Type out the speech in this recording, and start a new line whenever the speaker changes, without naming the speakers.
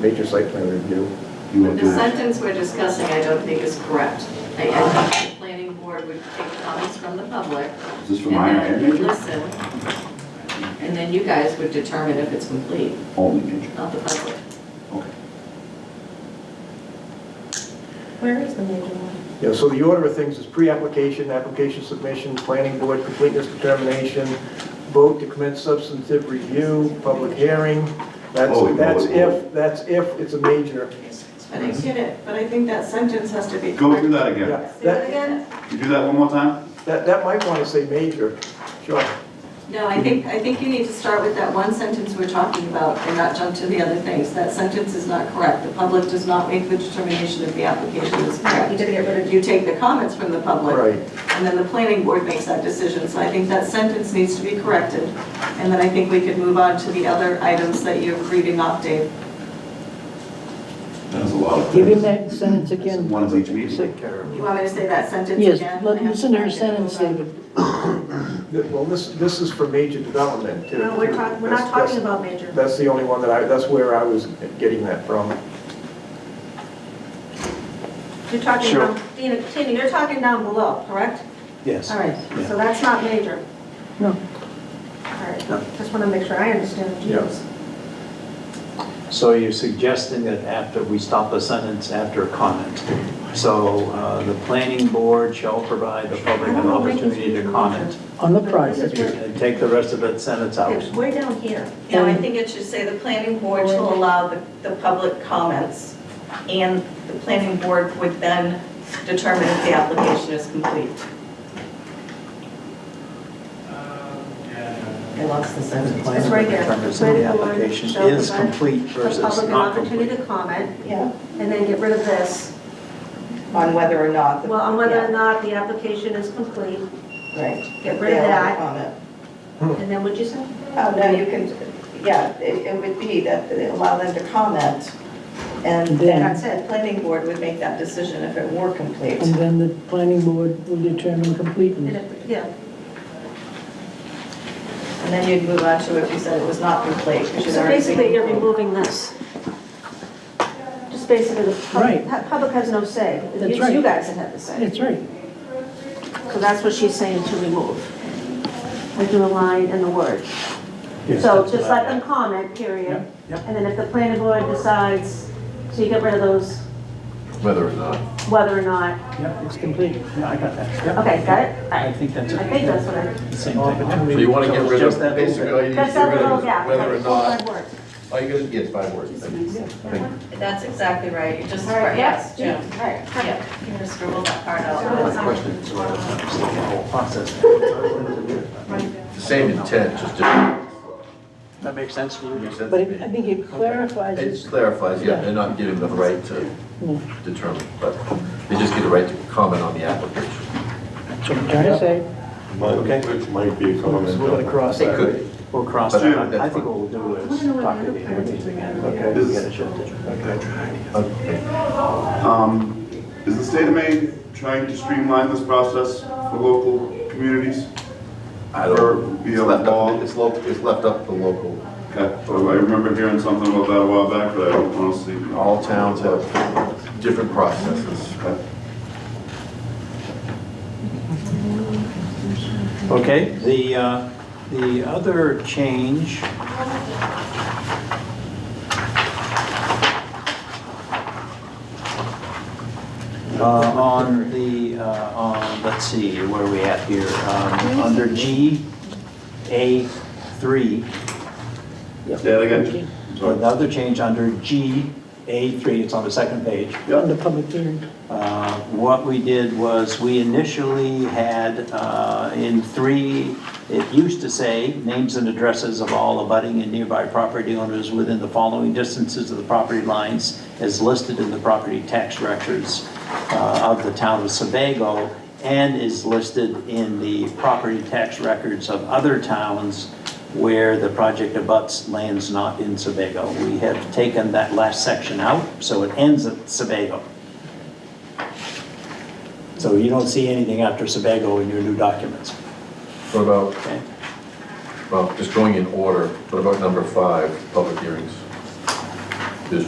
major site plan review.
You want
The
to,
sentence we're discussing, I don't think is correct. I I think the planning board would take comments from the public
is this from minor
and
and
then would
major?
listen. And then you guys would determine if it's complete,
Only major,
not the public.
okay.
Where is the major one?
Yeah, so the order of things is pre-application, application submission, planning board completeness determination, vote to commence substantive review, public hearing. That's,
Oh, we-
that's
oh, we-
if, that's if it's a major.
But I get it, but I think that sentence has to be.
Go through that again.
Yeah, That,
again?
You do that one more time?
that, that might want to say major, sure.
No, I think, I think you need to start with that one sentence we're talking about and not jump to the other things. That sentence is not correct. The public does not make the determination if the application is correct.
You gotta get rid of-
You take the comments from the public.
Right.
And then the planning board makes that decision. So I think that sentence needs to be corrected. And then I think we could move on to the other items that you're reading off, Dave.
That was a lot of
Give him
things.
that sentence again.
One of each meeting.
care of it.
You want me to say that sentence again?
Yes, let-
I have to
listen to her
find it. Hold
sentence,
on.
David.
Th- Well, this, this is for major development. too.
No, we're talking, we're
That's-
not
that's-
talking about major.
That's the only one that I, that's where I was getting that from.
You're talking
Sure.
down, Tina, Tina, you're talking down below, correct?
Yes.
All right, so that's not major.
No.
All right, just want to make sure I understand what you
Yeah.
use.
So you're suggesting that after, we stop the sentence after comment. So uh, the planning board shall provide the public an opportunity to comment.
On the
This is
project.
where-
And take the rest of that sentence out.
It's way down here.
No, I think it should say the planning board shall allow the, the public comments, and the planning board would then determine if the application is complete. I lost the
The
sentence.
It's
planning
right
board
here.
determines if the
Planning board
application
shall
is
provide
complete
The
versus
public an
not
opportunity
complete.
to comment,
Yeah,
and then get rid of this,
on whether or not. the-
well, on whether or
yeah,
not the application is complete,
Right.
get rid of
They allow
that,
comment.
and then what'd you say?
Oh, no, you can, yeah, it, it would be that they allow them to comment, and
Then-
then, the planning board would make that decision if it were complete.
And then the planning board will determine
And
completeness.
if- Yeah,
And then you'd move on to if you said it was not complete, which is
So
already.
basically, you're removing this. Just basically, the
Right.
pub- pu- public has no say.
That's
It's
right.
you guys that have the say.
That's right.
So that's what she's saying to remove, like the line and the word. So just let them comment, period. And then if the planning board decides, so you get rid of those. Whether or not. Whether or
Yep, it's complete. Yeah, I got that. Yep.
not. Okay, got it?
I think that's
I
it.
think that's what I,
Same thing.
So you want to get rid
Just that
of,
little bit.
basically, all you need to
that's
get
that
rid
little,
of
yeah.
is whether or
that's all
not,
five words.
all you gotta, yeah, it's five words. I think. I think.
That's exactly right, you just,
All right,
yes,
yes,
Jim,
All right.
yeah, you can just scribble that part out.
My question is rather than just the whole process.
The Same intent, just different.
That makes sense to you?
makes sense
But
to
it- I
me.
think it clarifies
It
it.
just clarifies, yeah, they're not giving the right to determine, but they just get the right to comment on the application.
That's what I'm trying to say.
Might, which might be a
So we're going to
comment.
cross
They
that.
could,
We'll cross
But
that.
I-
I- I think what we'll do is talk to the interviews again.
Okay.
We get it shifted.
okay,
Um, is the state of Maine trying to streamline this process for local communities?
I don't-
Or be
it's
a
left
law?
up, it's local, it's left up to local,
Okay, well, I remember hearing something about that a while back, but I don't honestly.
all towns have different processes.
Okay.
Okay, the, uh, the other change. Uh, on the, uh, on, let's see, where are we at here? Um, under G, A three,
Say that again. I'm sorry.
another change under G, A three, it's on the second page.
On the public hearing.
Uh, What we did was, we initially had uh, in three, it used to say, names and addresses of all abutting and nearby property owners within the following distances of the property lines as listed in the property tax records uh, of the town of Sebago and is listed in the property tax records of other towns where the project abuts lands not in Sebago. We have taken that last section out, so it ends at Sebago. So you don't see anything after Sebago in your new documents,
What about,
okay?
well, just going in order, what about number five, public hearings?